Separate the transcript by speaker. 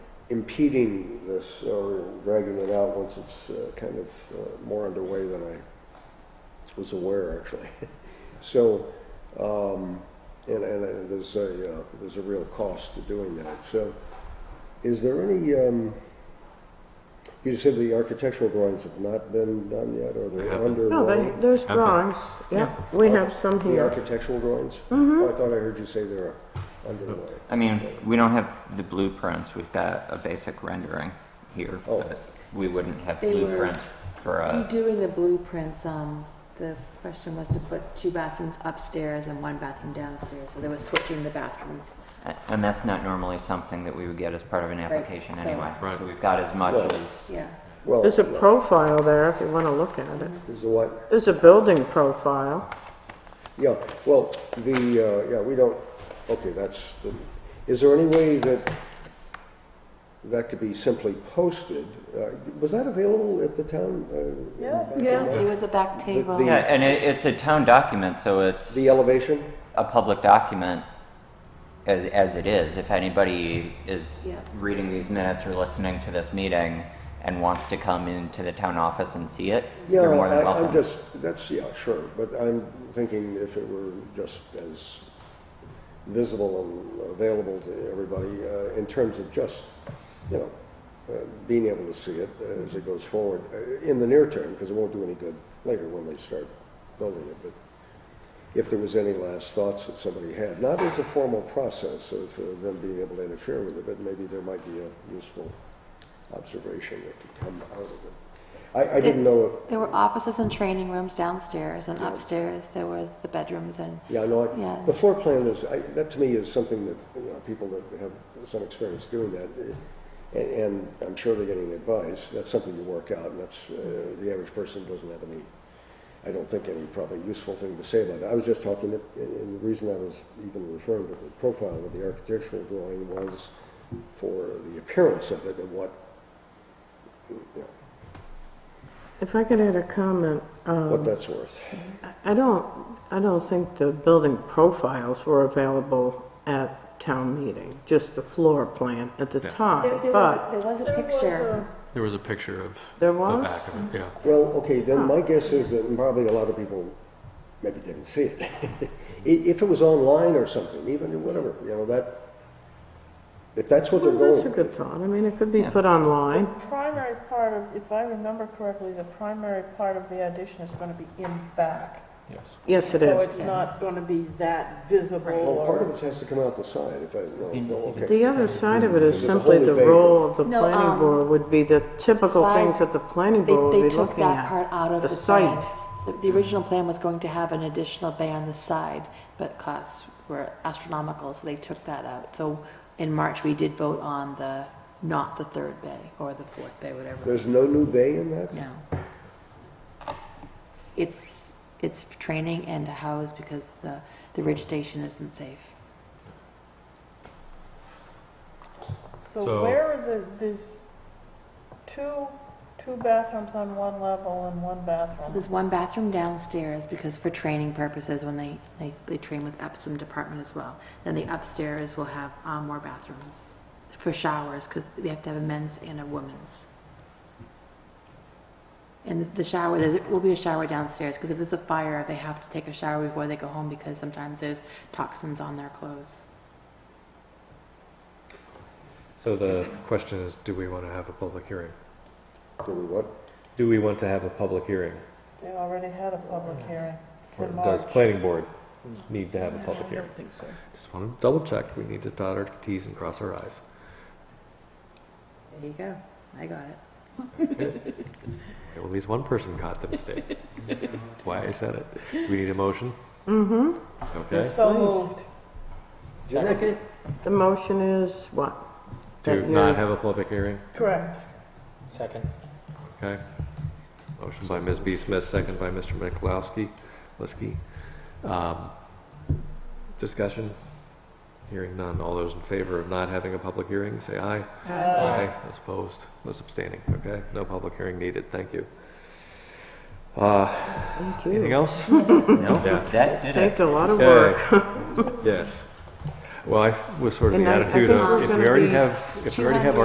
Speaker 1: impeding this or dragging it out once it's uh, kind of uh, more underway than I was aware, actually. So, um, and, and uh, there's a, uh, there's a real cost to doing that. So is there any, um, you said the architectural drawings have not been done yet, or
Speaker 2: They
Speaker 1: they're
Speaker 2: haven't.
Speaker 3: No,
Speaker 1: underway?
Speaker 3: Oh, they- there's
Speaker 2: Okay.
Speaker 3: drawings, yeah, we have some
Speaker 1: The
Speaker 3: here.
Speaker 1: architectural drawings?
Speaker 3: Mm-hmm.
Speaker 1: Oh, I thought I heard you say they're underway.
Speaker 4: I mean, we don't have the blueprints, we've got a basic rendering here,
Speaker 1: Oh.
Speaker 4: but we wouldn't have
Speaker 5: They were-
Speaker 4: blueprints for
Speaker 1: Uh,
Speaker 5: You
Speaker 4: a,
Speaker 5: do in the blueprints, um, the question was to put two bathrooms upstairs and one bathroom downstairs, so they were switching the bathrooms.
Speaker 4: and that's not normally something that we would get as part of an application
Speaker 5: so-
Speaker 4: anyway.
Speaker 2: Right.
Speaker 4: So we've got as much
Speaker 1: Right.
Speaker 4: as,
Speaker 5: Yeah,
Speaker 1: Well,
Speaker 3: There's a profile there if you want to look at it.
Speaker 1: is the what?
Speaker 3: There's a building profile.
Speaker 1: Yeah, well, the, uh, yeah, we don't, okay, that's, the- is there any way that that could be simply posted? Uh, Was that available at the town? uh,
Speaker 5: it was a back table.
Speaker 1: The-
Speaker 4: yeah, and it, it's a town document, so it's
Speaker 1: The elevation?
Speaker 4: a public document as, as it is. If anybody is
Speaker 5: Yeah.
Speaker 4: reading these minutes or listening to this meeting and wants to come into the town office and see it,
Speaker 1: Yeah,
Speaker 4: they're more than
Speaker 1: I-
Speaker 4: welcome.
Speaker 1: I'm just, that's, yeah, sure, but I'm thinking if it were just as visible and available to everybody uh, in terms of just, you know, uh, being able to see it as it goes forward uh, in the near term, because it won't do any good later when they start building it, but if there was any last thoughts that somebody had, not as a formal process of uh, them being able to interfere with it, but maybe there might be a useful observation that could come out of it. I, I didn't know,
Speaker 5: There were offices and training rooms downstairs, and upstairs there was the bedrooms and,
Speaker 1: yeah, I know, I-
Speaker 5: Yeah.
Speaker 1: the floor plan is, I- that to me is something that, you know, people that have some experience doing that, eh, and, and I'm sure they're getting advice, that's something you work out, and that's, uh, the average person doesn't have any, I don't think any probably useful thing to say about it. I was just talking, to- and and the reason I was even referring to the profile of the architectural drawing was for the appearance of it and what, you know,
Speaker 3: If I could add a comment, um,
Speaker 1: what that's worth.
Speaker 3: I don't, I don't think the building profiles were available at town meeting, just the floor plan at the
Speaker 2: Yeah.
Speaker 5: there,
Speaker 3: time,
Speaker 5: there
Speaker 3: but
Speaker 5: was, there was a picture.
Speaker 2: There was a picture of
Speaker 3: there
Speaker 2: the
Speaker 3: was?
Speaker 2: back of it, yeah.
Speaker 1: Well, okay, then my guess is that probably a lot of people maybe didn't see it. I- If it was online or something, even whatever, you know, that, if that's what they're
Speaker 3: Well, that's a
Speaker 1: going,
Speaker 3: good thought, I mean, it could be
Speaker 4: Yeah.
Speaker 3: put online.
Speaker 6: Primary part of, if I remember correctly, the primary part of the addition is going to be in back.
Speaker 2: Yes.
Speaker 3: Yes, it
Speaker 6: So
Speaker 3: is.
Speaker 6: it's not going to be that visible
Speaker 1: well, part of
Speaker 6: or
Speaker 1: it has to come out the side, if I, no,
Speaker 4: Can you
Speaker 1: no,
Speaker 4: see
Speaker 1: okay.
Speaker 4: the-
Speaker 3: The other side of it is
Speaker 1: It's a
Speaker 3: simply
Speaker 1: wholly
Speaker 3: the
Speaker 1: baked.
Speaker 3: role of the
Speaker 5: No,
Speaker 3: planning
Speaker 5: um,
Speaker 3: board would be the typical
Speaker 5: side-
Speaker 3: things that the planning
Speaker 5: They,
Speaker 3: board
Speaker 5: they
Speaker 3: would be
Speaker 5: took
Speaker 3: looking
Speaker 5: that part
Speaker 3: at.
Speaker 5: out of
Speaker 3: The
Speaker 5: the plan.
Speaker 3: site.
Speaker 5: The, the original plan was going to have an additional bay on the side, but costs were astronomical, so they took that out. So in March, we did vote on the, not the third bay or the fourth bay, whatever,
Speaker 1: There's no new bay in that?
Speaker 5: no. It's, it's for training and to house because the, the ridge station isn't safe.
Speaker 2: So-
Speaker 6: So where are the, there's two, two bathrooms on one level and one
Speaker 5: So
Speaker 6: bathroom.
Speaker 5: there's one bathroom downstairs because for training purposes, when they, they, they train with Epsom department as well. Then the upstairs will have um, more bathrooms for showers because they have to have a men's and a women's. And the shower, there will be a shower downstairs because if there's a fire, they have to take a shower before they go home because sometimes there's toxins on their clothes.
Speaker 2: So the question is, do we want to have a public hearing?
Speaker 1: Do we what?
Speaker 2: Do we want to have a public hearing?
Speaker 6: They already had a public hearing
Speaker 2: Or
Speaker 6: for
Speaker 2: does
Speaker 6: March.
Speaker 2: planning board need to have a public
Speaker 6: I
Speaker 2: hearing?
Speaker 6: don't think so.
Speaker 2: Just want to double check. We need to dot our Ts and cross our Is.
Speaker 5: There you go. I got it.
Speaker 2: Okay, well, at least one person caught the mistake. That's why I said it. We need a motion?
Speaker 3: Mm-hmm.
Speaker 2: Okay.
Speaker 6: So moved.
Speaker 1: Second.
Speaker 3: The motion is what?
Speaker 2: To not have a public hearing?
Speaker 6: Correct.
Speaker 2: Okay. Motion by Ms. B. Smith, second by Mr. McLowski, Liskey. Um, Discussion? Hearing none. All those in favor of not having a public hearing, say aye.
Speaker 6: Aye.
Speaker 2: Those opposed, those abstaining. Okay, no public hearing needed. Thank you. Uh,
Speaker 3: Thank
Speaker 2: Anything
Speaker 3: you.
Speaker 2: else?
Speaker 4: No,
Speaker 2: Yeah.
Speaker 4: that did it.
Speaker 3: Saved a lot of work.
Speaker 2: Okay. Yes. Well, I f- was sort of
Speaker 3: And
Speaker 2: the
Speaker 3: I- I
Speaker 2: attitude
Speaker 3: think
Speaker 2: of,
Speaker 3: there's
Speaker 2: if
Speaker 3: gonna
Speaker 2: we already
Speaker 3: be
Speaker 2: have, if we already have